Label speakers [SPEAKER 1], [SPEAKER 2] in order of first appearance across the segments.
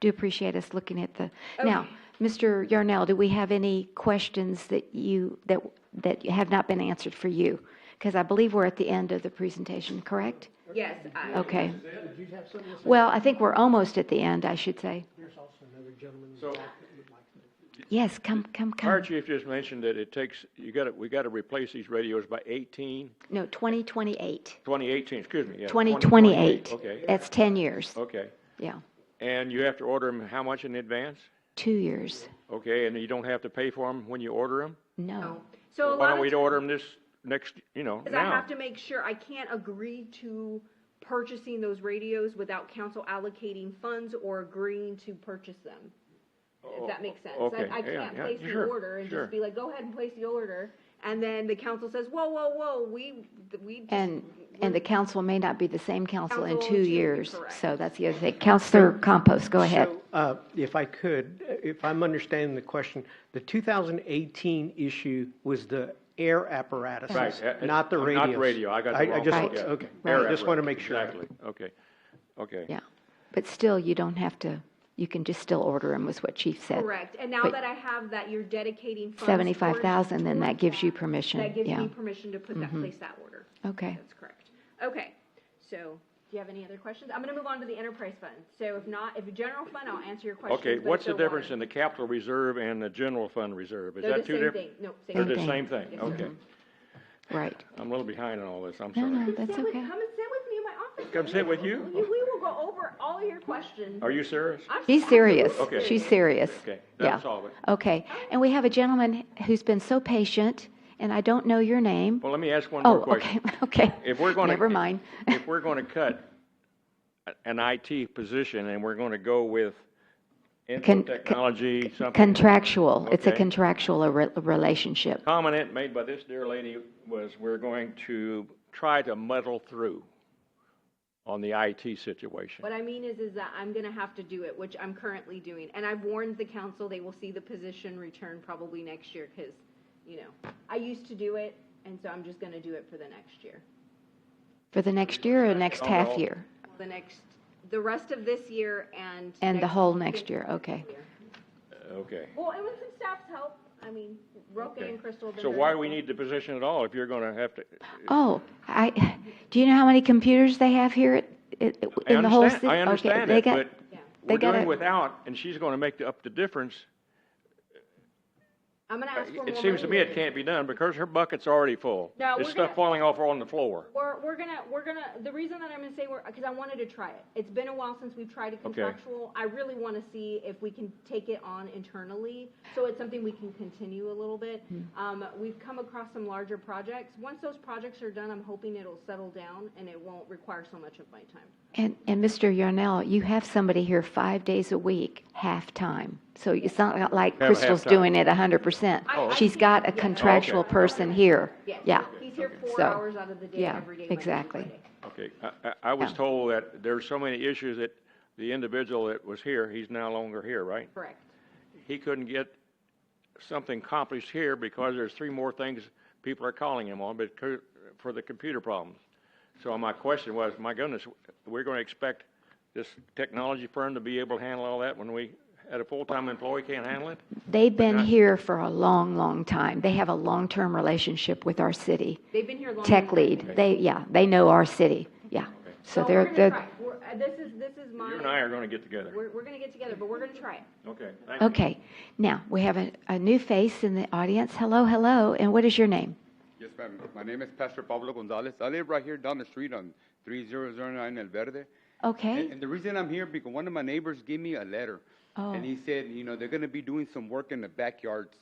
[SPEAKER 1] do appreciate us looking at the. Now, Mr. Yarnell, do we have any questions that you, that, that have not been answered for you? Because I believe we're at the end of the presentation, correct?
[SPEAKER 2] Yes, I-
[SPEAKER 1] Okay.
[SPEAKER 3] Did you have something to say?
[SPEAKER 1] Well, I think we're almost at the end, I should say.
[SPEAKER 3] There's also another gentleman in the
[SPEAKER 4] So-
[SPEAKER 3] back that would like to.
[SPEAKER 1] Yes, come, come,
[SPEAKER 4] Fire
[SPEAKER 1] come.
[SPEAKER 4] chief just mentioned that it takes, you gotta, we gotta replace these radios by 18,
[SPEAKER 1] No, 2028,
[SPEAKER 4] 2018, excuse me, yeah.
[SPEAKER 1] 2028.
[SPEAKER 4] Okay,
[SPEAKER 1] That's 10 years,
[SPEAKER 4] okay.
[SPEAKER 1] yeah,
[SPEAKER 4] And you have to order them how much in advance?
[SPEAKER 1] two years,
[SPEAKER 4] Okay, and you don't have to pay for them when you order them?
[SPEAKER 1] no.
[SPEAKER 2] so a
[SPEAKER 4] Why
[SPEAKER 2] lot
[SPEAKER 4] don't
[SPEAKER 2] of
[SPEAKER 4] we
[SPEAKER 2] times,
[SPEAKER 4] order them this next, you know,
[SPEAKER 2] I
[SPEAKER 4] now?
[SPEAKER 2] have to make sure, I can't agree to purchasing those radios without council allocating funds or agreeing to purchase them. If that makes sense. I-
[SPEAKER 4] okay,
[SPEAKER 2] I
[SPEAKER 4] yeah,
[SPEAKER 2] can't
[SPEAKER 4] yeah,
[SPEAKER 2] place the
[SPEAKER 4] sure,
[SPEAKER 2] order and
[SPEAKER 4] sure.
[SPEAKER 2] just be like, go ahead and place the order, and then the council says, whoa, whoa, whoa, we, we just.
[SPEAKER 1] And, and the council may not be the same council in
[SPEAKER 2] Council
[SPEAKER 1] two
[SPEAKER 2] in two,
[SPEAKER 1] years.
[SPEAKER 2] correct.
[SPEAKER 1] So that's the other thing. Counselor Compost, go ahead.
[SPEAKER 3] So, uh, If I could, uh, if I'm understanding the question, the 2018 issue was the air apparatus,
[SPEAKER 4] Right, uh, uh,
[SPEAKER 3] not the
[SPEAKER 4] not the
[SPEAKER 3] radios.
[SPEAKER 4] radio, I got the wrong-
[SPEAKER 3] just,
[SPEAKER 1] Right.
[SPEAKER 3] okay,
[SPEAKER 4] Air
[SPEAKER 3] I just want to
[SPEAKER 4] apparatus,
[SPEAKER 3] make sure.
[SPEAKER 4] Exactly, okay, okay.
[SPEAKER 1] Yeah, but still, you don't have to, you can just still order them, was what Chief said.
[SPEAKER 2] Correct, and now
[SPEAKER 1] But-
[SPEAKER 2] that I have that, you're dedicating funds. towards-
[SPEAKER 1] 75,000, then that
[SPEAKER 2] towards
[SPEAKER 1] gives you
[SPEAKER 2] that.
[SPEAKER 1] permission,
[SPEAKER 2] That gives
[SPEAKER 1] yeah.
[SPEAKER 2] me permission to put that,
[SPEAKER 4] Mm-hmm.
[SPEAKER 2] place that order.
[SPEAKER 1] Okay,
[SPEAKER 2] That's correct. Okay, so, do you have any other questions? I'm gonna move on to the enterprise fund. So if not, if general fund, I'll answer your questions.
[SPEAKER 4] Okay,
[SPEAKER 2] but if
[SPEAKER 4] what's the
[SPEAKER 2] there
[SPEAKER 4] difference
[SPEAKER 2] are-
[SPEAKER 4] in the capital reserve and the general fund reserve? Is
[SPEAKER 2] They're the
[SPEAKER 4] that two
[SPEAKER 2] same
[SPEAKER 4] different?
[SPEAKER 2] thing, no,
[SPEAKER 4] They're
[SPEAKER 2] same
[SPEAKER 4] the
[SPEAKER 2] thing.
[SPEAKER 4] same thing, okay.
[SPEAKER 1] right.
[SPEAKER 4] I'm a little behind on all this, I'm
[SPEAKER 1] No,
[SPEAKER 4] sorry.
[SPEAKER 1] no, that's
[SPEAKER 2] Sit with-
[SPEAKER 1] okay.
[SPEAKER 2] Come and sit with me in my office.
[SPEAKER 4] Come sit with you?
[SPEAKER 2] We we will go over all your questions.
[SPEAKER 4] Are you serious?
[SPEAKER 2] I'm
[SPEAKER 1] She's serious.
[SPEAKER 4] Okay.
[SPEAKER 1] She's serious.
[SPEAKER 4] Okay,
[SPEAKER 1] Yeah.
[SPEAKER 4] that's all of it.
[SPEAKER 1] Okay, and we have a gentleman who's been so patient, and I don't know your name.
[SPEAKER 4] Well, let me ask one
[SPEAKER 1] Oh,
[SPEAKER 4] more
[SPEAKER 1] okay,
[SPEAKER 4] question.
[SPEAKER 1] okay.
[SPEAKER 4] If we're gonna.
[SPEAKER 1] Never mind.
[SPEAKER 4] If we're gonna cut a- an IT position and we're gonna go with info
[SPEAKER 1] Con-
[SPEAKER 4] technology, something.
[SPEAKER 1] Contractual, it's a
[SPEAKER 4] Okay.
[SPEAKER 1] contractual re- relationship.
[SPEAKER 4] Comment made by this dear lady was, we're going to try to muddle through on the IT situation.
[SPEAKER 2] What I mean is, is that I'm gonna have to do it, which I'm currently doing, and I've warned the council, they will see the position return probably next year, because, you know, I used to do it, and so I'm just gonna do it for the next year.
[SPEAKER 1] For the next year or next
[SPEAKER 4] Oh,
[SPEAKER 1] half
[SPEAKER 4] well.
[SPEAKER 1] year?
[SPEAKER 2] The next, the rest of this year and.
[SPEAKER 1] And the whole next year, okay.
[SPEAKER 4] Uh, Okay.
[SPEAKER 2] Well, and with some staff's help, I mean, Roque
[SPEAKER 4] okay.
[SPEAKER 2] and Crystal. have been
[SPEAKER 4] So
[SPEAKER 2] very
[SPEAKER 4] why do we
[SPEAKER 2] helpful.
[SPEAKER 4] need the position at all if you're gonna have to?
[SPEAKER 1] Oh, I, do you know how many computers they have here at- at-
[SPEAKER 4] I
[SPEAKER 1] in the whole
[SPEAKER 4] understand-
[SPEAKER 1] city?
[SPEAKER 4] I
[SPEAKER 1] Okay,
[SPEAKER 4] understand it,
[SPEAKER 1] they got-
[SPEAKER 4] but
[SPEAKER 2] Yeah.
[SPEAKER 1] they
[SPEAKER 4] we're doing
[SPEAKER 1] gotta-
[SPEAKER 4] without, and she's gonna make the- up the difference.
[SPEAKER 2] I'm gonna ask for more.
[SPEAKER 4] It seems to me
[SPEAKER 2] money.
[SPEAKER 4] it can't be done because her bucket's already full.
[SPEAKER 2] No,
[SPEAKER 4] There's
[SPEAKER 2] we're
[SPEAKER 4] stuff
[SPEAKER 2] gonna-
[SPEAKER 4] falling off on the floor.
[SPEAKER 2] We're, we're gonna, we're gonna, the reason that I'm gonna say we're, because I wanted to try it. It's been a while since we've tried a contractual. I really want to see if we can take it on internally, so it's something we can continue a little bit.
[SPEAKER 1] Hmm.
[SPEAKER 2] Um, we've come across some larger projects. Once those projects are done, I'm hoping it'll settle down and it won't require so much of my time.
[SPEAKER 1] And, and Mr. Yarnell, you have somebody here five days a week, half-time. So it's not like
[SPEAKER 4] Have a
[SPEAKER 1] Crystal's
[SPEAKER 4] half-time.
[SPEAKER 1] doing it 100%.
[SPEAKER 2] I- I
[SPEAKER 1] She's
[SPEAKER 2] see.
[SPEAKER 1] got a
[SPEAKER 2] Yeah.
[SPEAKER 1] contractual
[SPEAKER 4] Okay.
[SPEAKER 1] person here.
[SPEAKER 2] Yes.
[SPEAKER 1] Yeah,
[SPEAKER 2] He's here four
[SPEAKER 1] So,
[SPEAKER 2] hours out of the day,
[SPEAKER 1] yeah,
[SPEAKER 2] every day, Monday through
[SPEAKER 1] exactly.
[SPEAKER 2] Friday.
[SPEAKER 4] Okay, I, I, I was
[SPEAKER 1] Yeah.
[SPEAKER 4] told that there's so many issues that the individual that was here, he's no longer here, right?
[SPEAKER 2] Correct.
[SPEAKER 4] He couldn't get something accomplished here because there's three more things people are calling him on, but co- for the computer problems. So my question was, my goodness, we're gonna expect this technology firm to be able to handle all that when we, at a full-time employee can't handle it?
[SPEAKER 1] They've been here for a long, long time. They have a long-term relationship with our city.
[SPEAKER 2] They've been here long.
[SPEAKER 1] Tech lead, they, yeah, they know our city, yeah. So
[SPEAKER 2] Well, we're
[SPEAKER 1] they're,
[SPEAKER 2] gonna
[SPEAKER 1] they're,
[SPEAKER 2] try. We're- uh, This is, this is
[SPEAKER 4] You and I
[SPEAKER 2] my,
[SPEAKER 4] are gonna get together.
[SPEAKER 2] we're, we're gonna get together, but we're gonna try it.
[SPEAKER 4] Okay, thank you.
[SPEAKER 1] okay. Now, we have a, a new face in the audience. Hello, hello, and what is your name?
[SPEAKER 5] Yes, ma'am. My name is Pastor Pablo Gonzalez. I live right here down the street on 3009 El Verde.
[SPEAKER 1] Okay,
[SPEAKER 5] And, and the reason I'm here because one of my neighbors gave me a letter,
[SPEAKER 1] Oh.
[SPEAKER 5] and he said, you know, they're going to be doing some work in the backyards,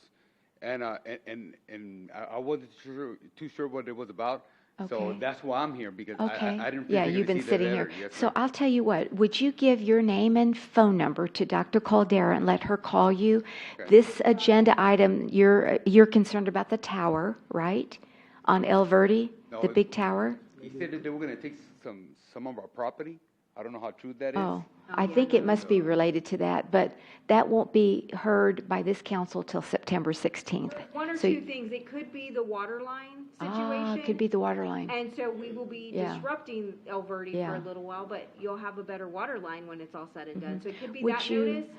[SPEAKER 5] and uh, and and, and I, I wasn't sure, too sure what it was about. So
[SPEAKER 1] Okay.
[SPEAKER 5] that's why I'm here because
[SPEAKER 1] okay.
[SPEAKER 5] I, I, I didn't. feel
[SPEAKER 1] Yeah,
[SPEAKER 5] they're
[SPEAKER 1] you've
[SPEAKER 5] gonna
[SPEAKER 1] been
[SPEAKER 5] see the
[SPEAKER 1] sitting here.
[SPEAKER 5] letter. Yes,
[SPEAKER 1] So
[SPEAKER 5] ma'am.
[SPEAKER 1] I'll tell you what, would you give your name and phone number to Dr. Caldera and let her call you? This agenda item, you're, you're concerned about the tower, right? On El Verde,
[SPEAKER 5] No,
[SPEAKER 1] the
[SPEAKER 5] it-
[SPEAKER 1] big tower?
[SPEAKER 5] he said that they were going to take some some of our property, I don't know how true that is.
[SPEAKER 1] Oh, I think it must be related to that, but that won't be heard by this council till September 16th.
[SPEAKER 2] One or
[SPEAKER 1] So-
[SPEAKER 2] two things, it could be the water line
[SPEAKER 1] Ah,
[SPEAKER 2] situation.
[SPEAKER 1] it Could be the water line.
[SPEAKER 2] And so we will be
[SPEAKER 1] Yeah.
[SPEAKER 2] disrupting El Verde for
[SPEAKER 1] Yeah.
[SPEAKER 2] a little while, but you'll have a better water line when it's all said and done. So it could be
[SPEAKER 1] Mm-hmm. Would
[SPEAKER 2] that
[SPEAKER 1] you-
[SPEAKER 2] notice.